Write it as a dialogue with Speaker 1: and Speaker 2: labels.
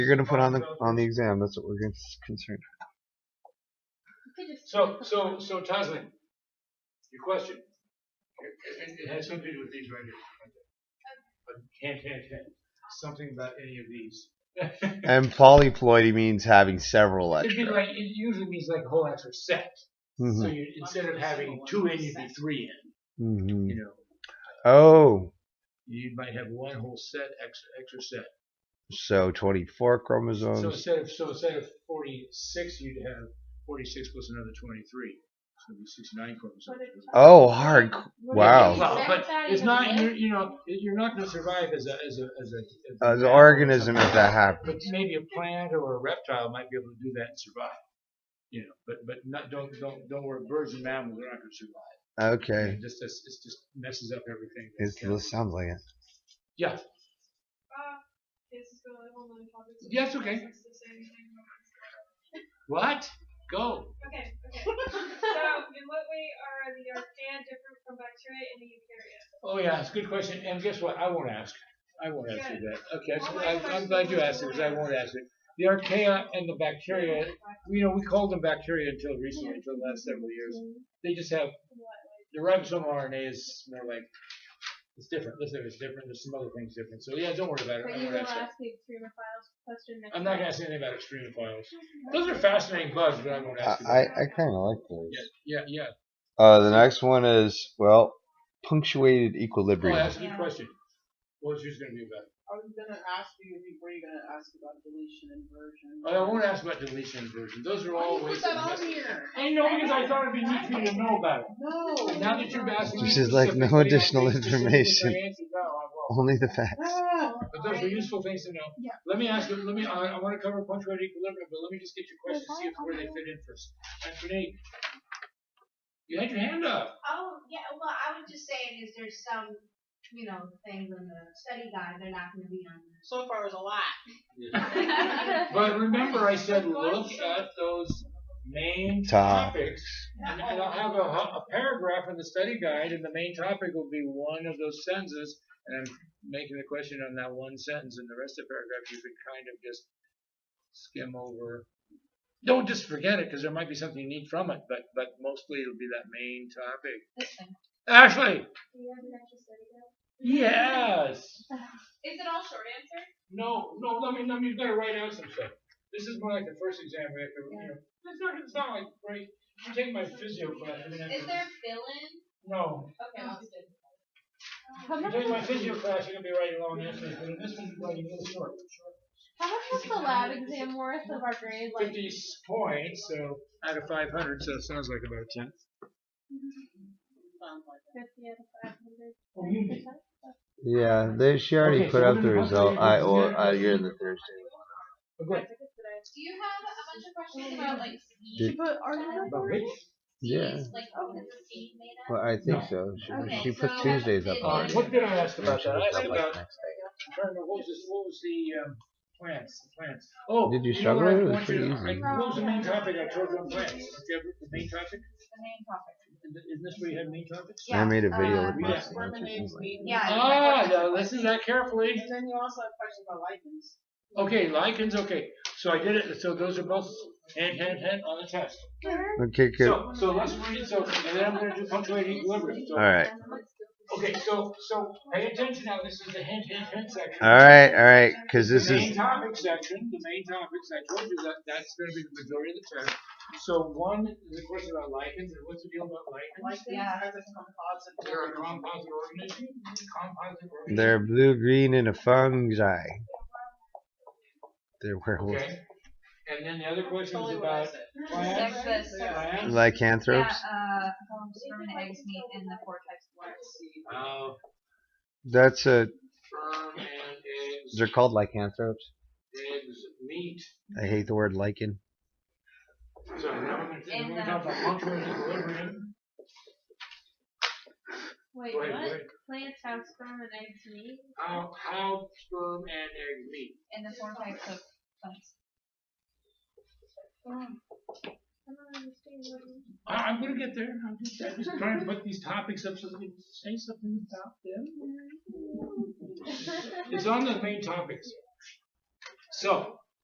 Speaker 1: You're gonna put on the on the exam. That's what we're gonna- concerned.
Speaker 2: So, so, so Toslin, your question, it, it- it has something to do with these right here. But can't, can't, can't, something about any of these.
Speaker 1: And polyploidy means having several
Speaker 2: It'd be
Speaker 1: extra.
Speaker 2: like, it usually means like a whole extra set, so
Speaker 1: Mhm,
Speaker 2: you, instead of having two in, you'd be three in,
Speaker 1: mhm.
Speaker 2: you know?
Speaker 1: Oh,
Speaker 2: You might have one whole set, extra, extra set.
Speaker 1: so 24
Speaker 2: So
Speaker 1: chromosomes.
Speaker 2: instead of, so instead of forty-six, you'd have forty-six plus another twenty-three, so it'd be sixty-nine chromosomes.
Speaker 1: Oh, hard. c- Wow.
Speaker 2: Well, but it's not, you're, you know, you're not gonna survive as a, as a, as a.
Speaker 1: As an Uh, organism, if that
Speaker 2: But
Speaker 1: happens.
Speaker 2: maybe a plant or a reptile might be able to do that and survive. You know, but, but not, don't, don't, don't worry, birds and mammals are not gonna survive.
Speaker 1: Okay.
Speaker 2: It just, it's, it's just messes up everything.
Speaker 1: It's, this sounds like it.
Speaker 2: Yeah, Yeah, it's okay. what? Go.
Speaker 3: Okay, okay. So, in what way are the archaea different from bacteria and the eukarya?
Speaker 2: Oh, yeah, it's a good question, and guess what? I won't ask. I won't ask you that. Okay,
Speaker 3: Oh,
Speaker 2: that's-
Speaker 3: my
Speaker 2: I'm, I'm glad you asked it, because I won't ask it. The archaea and the bacteria, you know, we called them bacteria until recently, until the last several years. They just have the ribosomal RNA is more like, it's different, listen, it's different, there's some other things different, so yeah, don't worry about it,
Speaker 4: But
Speaker 2: I'm
Speaker 4: you
Speaker 2: not
Speaker 4: will
Speaker 2: asking.
Speaker 4: ask the extremophiles question next
Speaker 2: I'm not gonna
Speaker 4: time.
Speaker 2: ask anything about extreme files. Those are fascinating bugs, but I won't
Speaker 1: I,
Speaker 2: ask you
Speaker 1: I,
Speaker 2: about it.
Speaker 1: I kind of like those.
Speaker 2: Yeah, yeah,
Speaker 1: Uh, the next one is well, punctuated
Speaker 2: yeah, oh,
Speaker 1: equilibrium.
Speaker 2: that's a good question. What was yours gonna be about?
Speaker 5: I was gonna ask you if you were you gonna ask about deletion and version.
Speaker 2: Oh, I won't ask about deletion and version, those are all ways. of messing-
Speaker 5: here?
Speaker 2: I know, because I thought it'd be neat for you to know about it.
Speaker 5: No.
Speaker 2: Now that you've asked me
Speaker 1: This is like no
Speaker 2: specifically, I
Speaker 1: additional
Speaker 2: think specifically
Speaker 1: information.
Speaker 2: I answered, no, I won't.
Speaker 1: Only the facts.
Speaker 5: Ah,
Speaker 2: But those are useful things to know.
Speaker 4: Yeah.
Speaker 2: Let me ask you, let me, I, I wanna cover punctuated equilibrium, but let me just get your questions, see if where they fit in first. And Renee, you had your hand up.
Speaker 6: Oh, yeah, well, I was just saying is there's some, you know, things in the study guide, they're not gonna be on there.
Speaker 5: so far it was a lot.
Speaker 2: But remember I said, look at those main
Speaker 1: Topics.
Speaker 2: topics. And and I'll have a, a paragraph in the study guide and the main topic will be one of those sentences. And I'm making the question on that one sentence and the rest of the paragraph you can kind of just skim over. Don't just forget it because there might be something you need from it, but, but mostly it'll be that main topic. Ashley,
Speaker 4: Do you have an extra study guide?
Speaker 2: yes.
Speaker 3: Is it all short answer?
Speaker 2: No, no, let me, let me, you gotta write out some stuff. This is more like the first exam we have to, you know, it's not, it's not like, right, you take my physio class and then.
Speaker 3: Is there fill-in?
Speaker 2: No,
Speaker 3: Okay,
Speaker 6: Um,
Speaker 3: that's good.
Speaker 4: How
Speaker 2: you
Speaker 4: much,
Speaker 2: take my
Speaker 4: was,
Speaker 2: physio class, you're gonna be writing long answers, but in this one, you're writing really short.
Speaker 4: how much was the lab exam worth of our grade? Like,
Speaker 2: Fifty s- points, so. Out of five hundred, so it sounds like about a tenth.
Speaker 5: Sounds like it.
Speaker 4: 50 out of 500.
Speaker 2: Oh, you did.
Speaker 1: Yeah, they she already
Speaker 2: Okay,
Speaker 1: put
Speaker 2: so
Speaker 1: up
Speaker 2: what
Speaker 1: the
Speaker 2: did- what did
Speaker 1: result.
Speaker 2: you-
Speaker 1: I
Speaker 2: what
Speaker 1: or
Speaker 2: did
Speaker 1: I
Speaker 2: you-
Speaker 1: you're in the Thursday.
Speaker 2: Oh, good.
Speaker 3: Do you have a bunch of questions
Speaker 2: Oh,
Speaker 4: Yeah.
Speaker 3: about like
Speaker 1: Did-
Speaker 4: She put our
Speaker 2: About which?
Speaker 1: Yeah.
Speaker 3: seeds, like
Speaker 4: oh,
Speaker 3: what is the seed made of?
Speaker 1: Well, I think
Speaker 2: No.
Speaker 1: so. She,
Speaker 4: Okay,
Speaker 1: she put
Speaker 3: so
Speaker 1: Tuesdays up
Speaker 3: it
Speaker 1: on
Speaker 2: Uh,
Speaker 1: it.
Speaker 3: is-
Speaker 2: what did I ask
Speaker 1: And
Speaker 2: about
Speaker 1: she
Speaker 2: that? I
Speaker 1: was
Speaker 2: asked
Speaker 1: up, like,
Speaker 2: about,
Speaker 1: next day.
Speaker 2: trying to, what was this, what was the, um, plants, the plants? Oh.
Speaker 1: Did you
Speaker 2: know
Speaker 1: struggle
Speaker 2: what I
Speaker 1: with it? It was
Speaker 2: want you to-
Speaker 1: pretty
Speaker 2: I- What was the main topic I told you on plants? Did you have the main topic?
Speaker 6: The main topic.
Speaker 2: Isn't this where you had main topics?
Speaker 1: I made a
Speaker 4: um,
Speaker 1: video
Speaker 6: uh,
Speaker 1: with my
Speaker 2: yeah.
Speaker 1: son.
Speaker 5: Lemonades, weed.
Speaker 6: Yeah.
Speaker 2: Ah, now listen to that carefully.
Speaker 5: And then you also have questions about lichens.
Speaker 2: Okay, lichens, okay. So I did it, so those are both hand, hand, hand on the test.
Speaker 1: Okay, good.
Speaker 2: So, so let's read, so, and then I'm gonna do punctuated equilibrium. So-
Speaker 1: All right.
Speaker 2: Okay, so, so pay attention now, this is the hint, hint, hint section.
Speaker 1: All right, all right, because this
Speaker 2: The main
Speaker 1: is
Speaker 2: topic section, the main topics, I told you that, that's gonna be the majority of the test. So one is a question about lichens, and what's the deal about lichens?
Speaker 5: Lichens
Speaker 6: Yeah.
Speaker 5: as a composite.
Speaker 2: They're a composite organism, composite organism.
Speaker 1: they're blue green and a fungi. They're werewolves,
Speaker 2: Okay, and then the other question is
Speaker 5: Totally what I
Speaker 2: about
Speaker 5: said.
Speaker 2: plants,
Speaker 6: Sex, sex.
Speaker 2: plants.
Speaker 6: Yeah,
Speaker 1: lycanthropes.
Speaker 6: uh, sperm and eggs meet in the four types of water.
Speaker 2: Uh,
Speaker 1: That's a.
Speaker 2: sperm and eggs,
Speaker 1: They're called lycanthropes.
Speaker 2: eggs, meat.
Speaker 1: I hate the word lichen.
Speaker 2: So now we're gonna, we're gonna talk about punctuated equilibrium.
Speaker 4: Wait,
Speaker 2: Wait,
Speaker 4: what?
Speaker 2: wait.
Speaker 4: Plants have sperm and eggs meet?
Speaker 2: How, how sperm and egg meet.
Speaker 6: In the four types of um, plants.
Speaker 4: I don't understand what you
Speaker 2: I, I'm gonna get there, I'm just, I'm just trying to put these topics up so that we can say something about them. It's on the main topics. So,